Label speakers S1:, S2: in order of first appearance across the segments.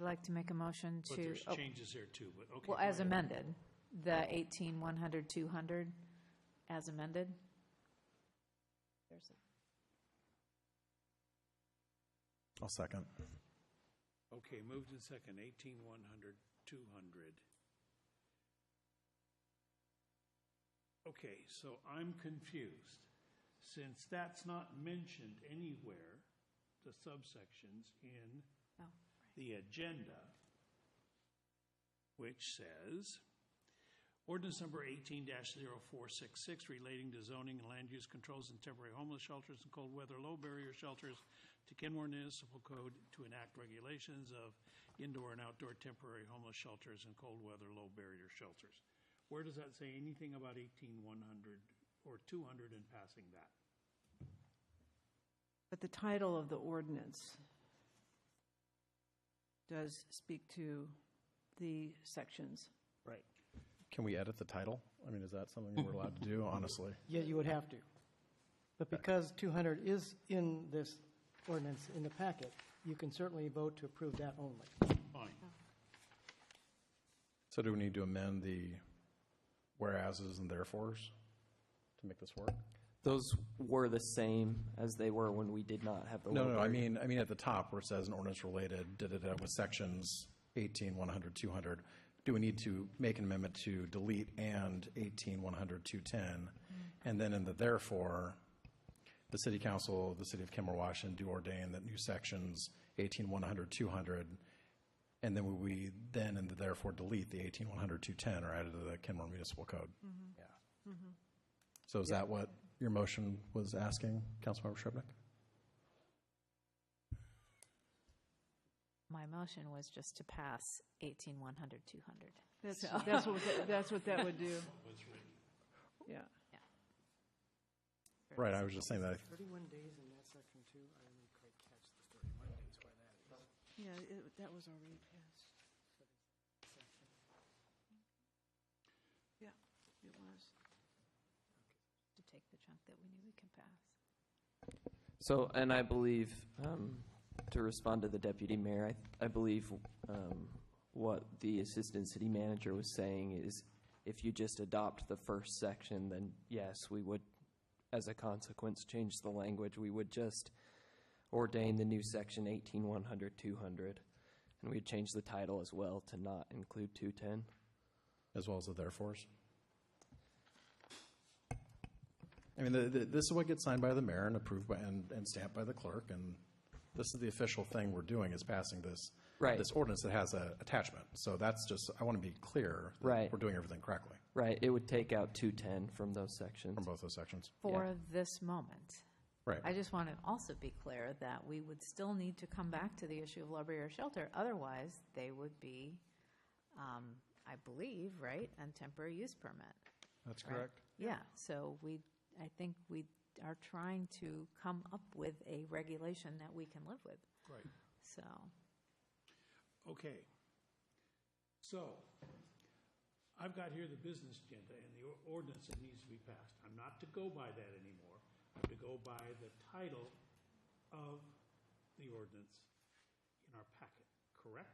S1: like to make a motion
S2: But
S1: to,
S2: there's
S1: oh,
S2: changes there too, but okay.
S1: well,
S2: go
S1: as
S2: ahead.
S1: amended, the 18, 100, 200, as amended.
S3: I'll second.
S2: Okay, moved in second, eighteen, one hundred, two hundred. Okay, so I'm confused. Since that's not mentioned anywhere, the subsections in
S1: Oh,
S2: the agenda, which says, ordinance number eighteen 466 relating to zoning and land use controls in temporary homeless shelters and cold weather low barrier shelters to Kenmore Municipal Code to enact regulations of indoor and outdoor temporary homeless shelters and cold weather low barrier shelters. Where does that say anything about eighteen one hundred or two hundred and passing that?
S4: But the title of the ordinance does speak to the sections.
S5: Right.
S3: Can we edit the title? I mean, is that something we're allowed to do, honestly?
S5: Yeah, you would have to. But because 200 is in this ordinance, in the packet, you can certainly vote to approve that only.
S2: Fine.
S3: So do we need to amend the whereases and therefores to make this work?
S6: Those were the same as they were when we did not have the.
S3: No,
S6: low
S3: no, I
S6: barrier.
S3: mean, I mean at the top where it says an ordinance related, da-da-da, with sections 18, 100, 200, do we need to make an amendment to delete and 18, 100, 210? And then in the therefore, the city council, of the city of Kimmel, Washington, do ordain that new sections 18, 100, 200, and then we then and therefore delete the 18, 100, 210 are added to the Kenmore Municipal Code. Yeah. So is that what your motion was asking, Councilmember Shrubnik?
S1: My motion was just to pass 18, 100, 200.
S4: That's, that's what, that- that's what that would do. Yeah.
S3: Right, I was just saying that, I
S5: 31 days in that section too, I didn't quite catch the 31 days why that is.
S4: Yeah, it- that was already passed. Yeah, it was.
S1: To take the chunk that we knew we could pass.
S6: So, and I believe, um, to respond to the deputy mayor, I, I believe, um, what the assistant city manager was saying is if you just adopt the first section, then yes, we would, as a consequence, change the language. We would just ordain the new section eighteen one hundred two hundred. And we'd change the title as well to not include two ten.
S3: as well as the therefores. I mean, the, the, this is what gets signed by the mayor and approved by, and, and stamped by the clerk, and this is the official thing we're doing, is passing this.
S6: Right.
S3: This ordinance that has a attachment, so that's just, I want to be clear. that
S6: Right.
S3: We're doing everything correctly
S6: Right, it would take out two ten from those sections.
S3: from both those sections.
S1: For this moment.
S3: Right.
S1: I just want to also be clear that we would still need to come back to the issue of low barrier shelter. Otherwise, they would be, um, I believe, right, on temporary use permit.
S3: That's
S1: right? Yeah, so we, I think we are trying to come up with a regulation that we can live with.
S2: Right.
S1: So,
S2: Okay. So, I've got here the business agenda and the or- ordinance that needs to be passed. I'm not to go by that anymore. I'm to go by the title of the ordinance in our packet, correct?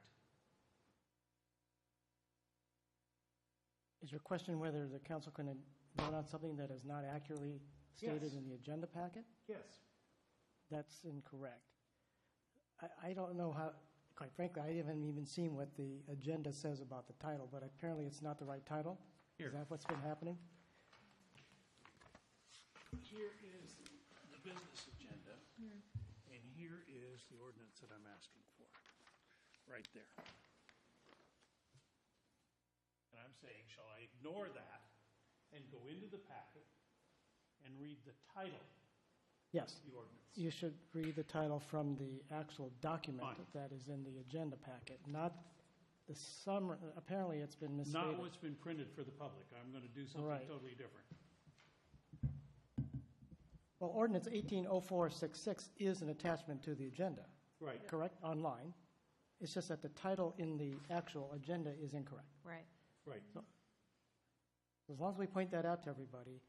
S5: Is your question whether the council can vote on something that is not accurately stated
S2: Yes.
S5: in the agenda packet?
S2: Yes.
S5: That's incorrect. I, I don't know how, quite frankly, I haven't even seen what the agenda says about the title, but apparently it's not the right title.
S2: Here.
S5: Is that what's been happening?
S2: Here is Hmm. the business agenda, and here is the ordinance that I'm asking for, right there. And I'm saying, shall I ignore that and go into the packet and read the title
S5: Yes.
S2: of the ordinance?
S5: You should read the title from the actual document
S2: Fine.
S5: that is in the agenda packet, not the summary, apparently it's been misstated.
S2: Not what's been printed for the public. I'm going to do something
S5: Right.
S2: totally different.
S5: Well, ordinance 180466 is an attachment to the agenda,
S2: Right.
S5: correct, online? It's just that the title in the actual agenda is incorrect.
S1: right.
S2: Right.
S5: As long as we point that out to everybody,